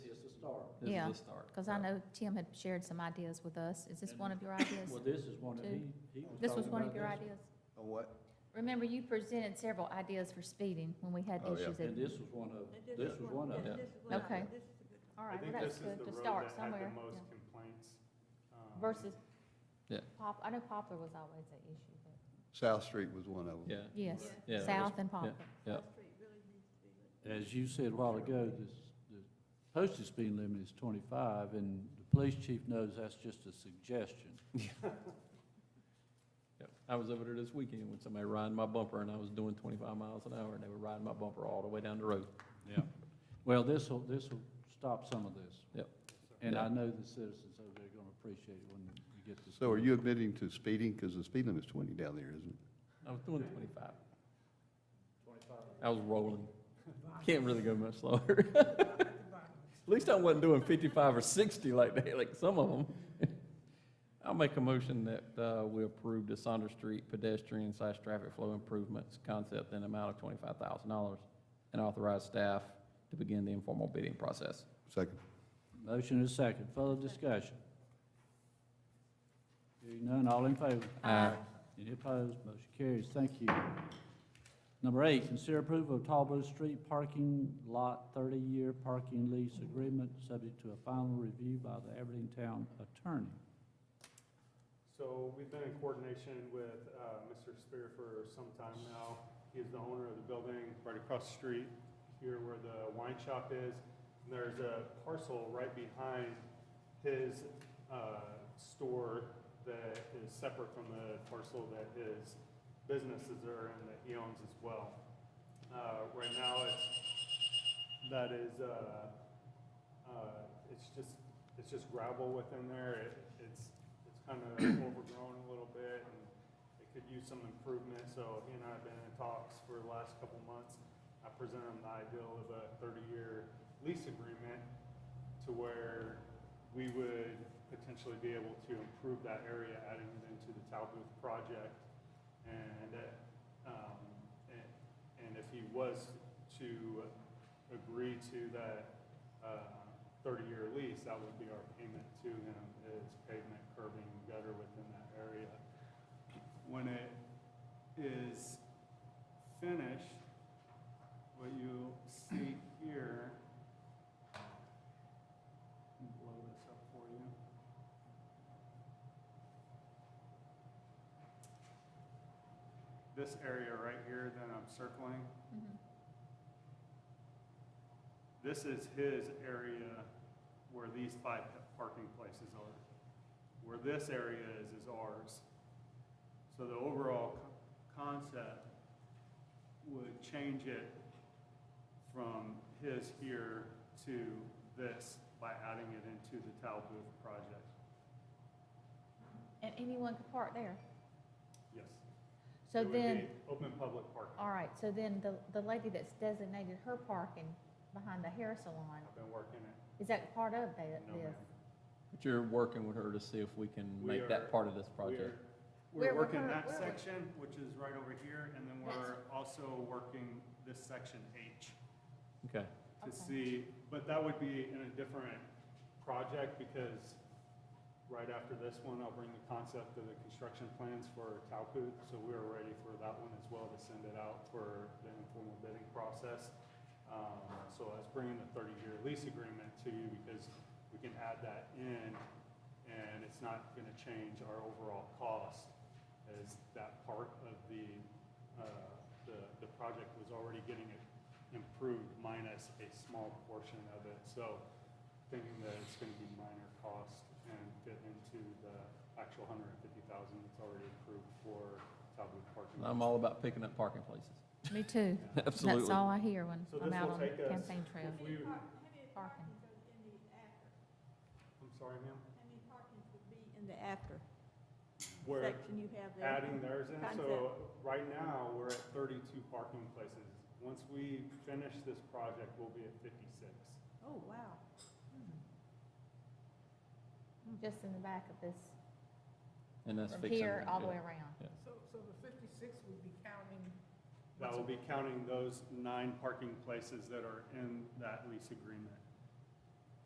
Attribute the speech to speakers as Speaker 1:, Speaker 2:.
Speaker 1: This
Speaker 2: Yeah,
Speaker 1: is a start.
Speaker 2: Because I know Tim had shared some ideas with us. Is this one of your ideas?
Speaker 3: Well, this is one that he, he was talking about.
Speaker 2: This was one of your
Speaker 3: this,
Speaker 2: ideas?
Speaker 4: A Oh, what?
Speaker 2: Remember, you presented several ideas for speeding when we had
Speaker 4: Oh, yeah.
Speaker 2: issues. at-
Speaker 3: And this was one of, this was one of
Speaker 1: yeah.
Speaker 3: them.
Speaker 1: them.
Speaker 2: Okay. All
Speaker 5: I
Speaker 2: right, well,
Speaker 5: think
Speaker 2: that's
Speaker 5: this is
Speaker 2: good
Speaker 5: the
Speaker 2: to
Speaker 5: road
Speaker 2: start
Speaker 5: that had
Speaker 2: somewhere.
Speaker 5: the most
Speaker 2: yeah.
Speaker 5: complaints. um,
Speaker 2: Versus
Speaker 1: Yeah.
Speaker 2: pop, I know Poplar was always an issue, but,
Speaker 4: South Street was one of
Speaker 1: Yeah,
Speaker 4: them.
Speaker 2: yes,
Speaker 1: yeah. it was-
Speaker 2: South and Poplar.
Speaker 1: Yeah.
Speaker 3: As you said a while ago, this, the posted speed limit is twenty-five, and the police chief knows that's just a suggestion.
Speaker 1: yeah. I was over there this weekend when somebody riding my bumper, and I was doing twenty-five miles an hour, and they were riding my bumper all the way down the road.
Speaker 3: Yeah. Well, this'll, this'll stop some of this.
Speaker 1: Yep.
Speaker 3: And I know the citizens over there are gonna appreciate it when you get this.
Speaker 4: So are you admitting to speeding? Because the speed limit's 20 down there, isn't it?
Speaker 1: I was doing twenty-five. I was rolling. Can't really go much slower. At least I wasn't doing fifty-five or sixty like they, like some of them. I'll make a motion that, uh, we approve the Saunders Street pedestrian slash traffic flow improvements concept in amount of twenty-five thousand dollars and authorize staff to begin the informal bidding process.
Speaker 4: Second.
Speaker 3: Motion and a second, further discussion. Hearing none, all in favor?
Speaker 1: Uh,
Speaker 2: Aye.
Speaker 3: Any opposed, motion carries, thank you. Number eight, consider approval of Talbot Street Parking Lot thirty-year parking lease agreement, subject to a final review by the Aberdeen Town Attorney.
Speaker 5: So we've been in coordination with uh, Mr. Spear for some time now. He is the owner of the building right across the street here where the wine shop is. And there's a parcel right behind his uh, store that is separate from the parcel that his businesses are in that he owns as well. Uh, Right now, it's, that is, uh, uh, it's just, it's just gravel within there. It- It's, it's kind of overgrown a little bit and it could use some improvement. So he and I have been in talks for the last couple months. I presented him the ideal of a thirty-year lease agreement to where we would potentially be able to improve that area, adding it into the Talbooth project. And, uh, um, and, and if he was to agree to that, uh, thirty-year lease, that would be our payment to him, is pavement, curbing, gutter within that area. When it is finished, what you see here, let me blow this up for you. This area right here that I'm circling,
Speaker 2: Mhm.
Speaker 5: this is his area where these five pa- parking places are. Where this area is, is ours. So the overall co- concept would change it from his here to this by adding it into the Talbooth project.
Speaker 2: And anyone could park there.
Speaker 5: Yes.
Speaker 2: So
Speaker 5: It would be
Speaker 2: then,
Speaker 5: Open public parking.
Speaker 2: all right, so then the, the lady that's designated her parking behind the hair salon,
Speaker 5: I've been working it.
Speaker 2: is that part of that,
Speaker 5: No,
Speaker 2: this?
Speaker 5: ma'am.
Speaker 1: But you're working with her to see if we can
Speaker 5: We
Speaker 1: make
Speaker 5: are-
Speaker 1: that part of this
Speaker 5: We're-
Speaker 1: project.
Speaker 2: Where we're
Speaker 5: We're working
Speaker 2: cur-
Speaker 5: that
Speaker 2: where we're-
Speaker 5: section, which is right over here, and then we're
Speaker 2: That's-
Speaker 5: also working this section H
Speaker 1: Okay,
Speaker 2: Okay.
Speaker 5: to see, but that would be in a different project because right after this one, I'll bring the concept of the construction plans for Taupo, so we're ready for that one as well to send it out for the informal bidding process. Um, so that's bringing the thirty-year lease agreement to you because we can add that in and it's not gonna change our overall cost as that part of the, uh, the, the project was already getting it improved minus a small portion of it. So thinking that it's gonna be minor cost and fit into the actual hundred and fifty thousand that's already approved for Talbot parking.
Speaker 1: And I'm all about picking up parking places.
Speaker 2: Me too.
Speaker 1: Absolutely.
Speaker 2: That's all I hear when
Speaker 5: So
Speaker 2: I'm
Speaker 5: this
Speaker 2: out
Speaker 5: will
Speaker 2: on the
Speaker 5: take us-
Speaker 2: campaign trail,
Speaker 5: If we-
Speaker 2: parking.
Speaker 5: I'm sorry, ma'am?
Speaker 6: In the after
Speaker 5: We're
Speaker 6: section you have there.
Speaker 5: adding theirs in, so
Speaker 6: Concept.
Speaker 5: right now, we're at thirty-two parking places. Once we finish this project, we'll be at fifty-six.
Speaker 6: Oh, wow.
Speaker 2: just in the back of this,
Speaker 1: And that's
Speaker 2: from
Speaker 1: fixing.
Speaker 2: here all the
Speaker 1: yeah.
Speaker 2: way around.
Speaker 7: So, so the fifty-six would be counting,
Speaker 5: That will be counting those nine parking places that are in that lease agreement.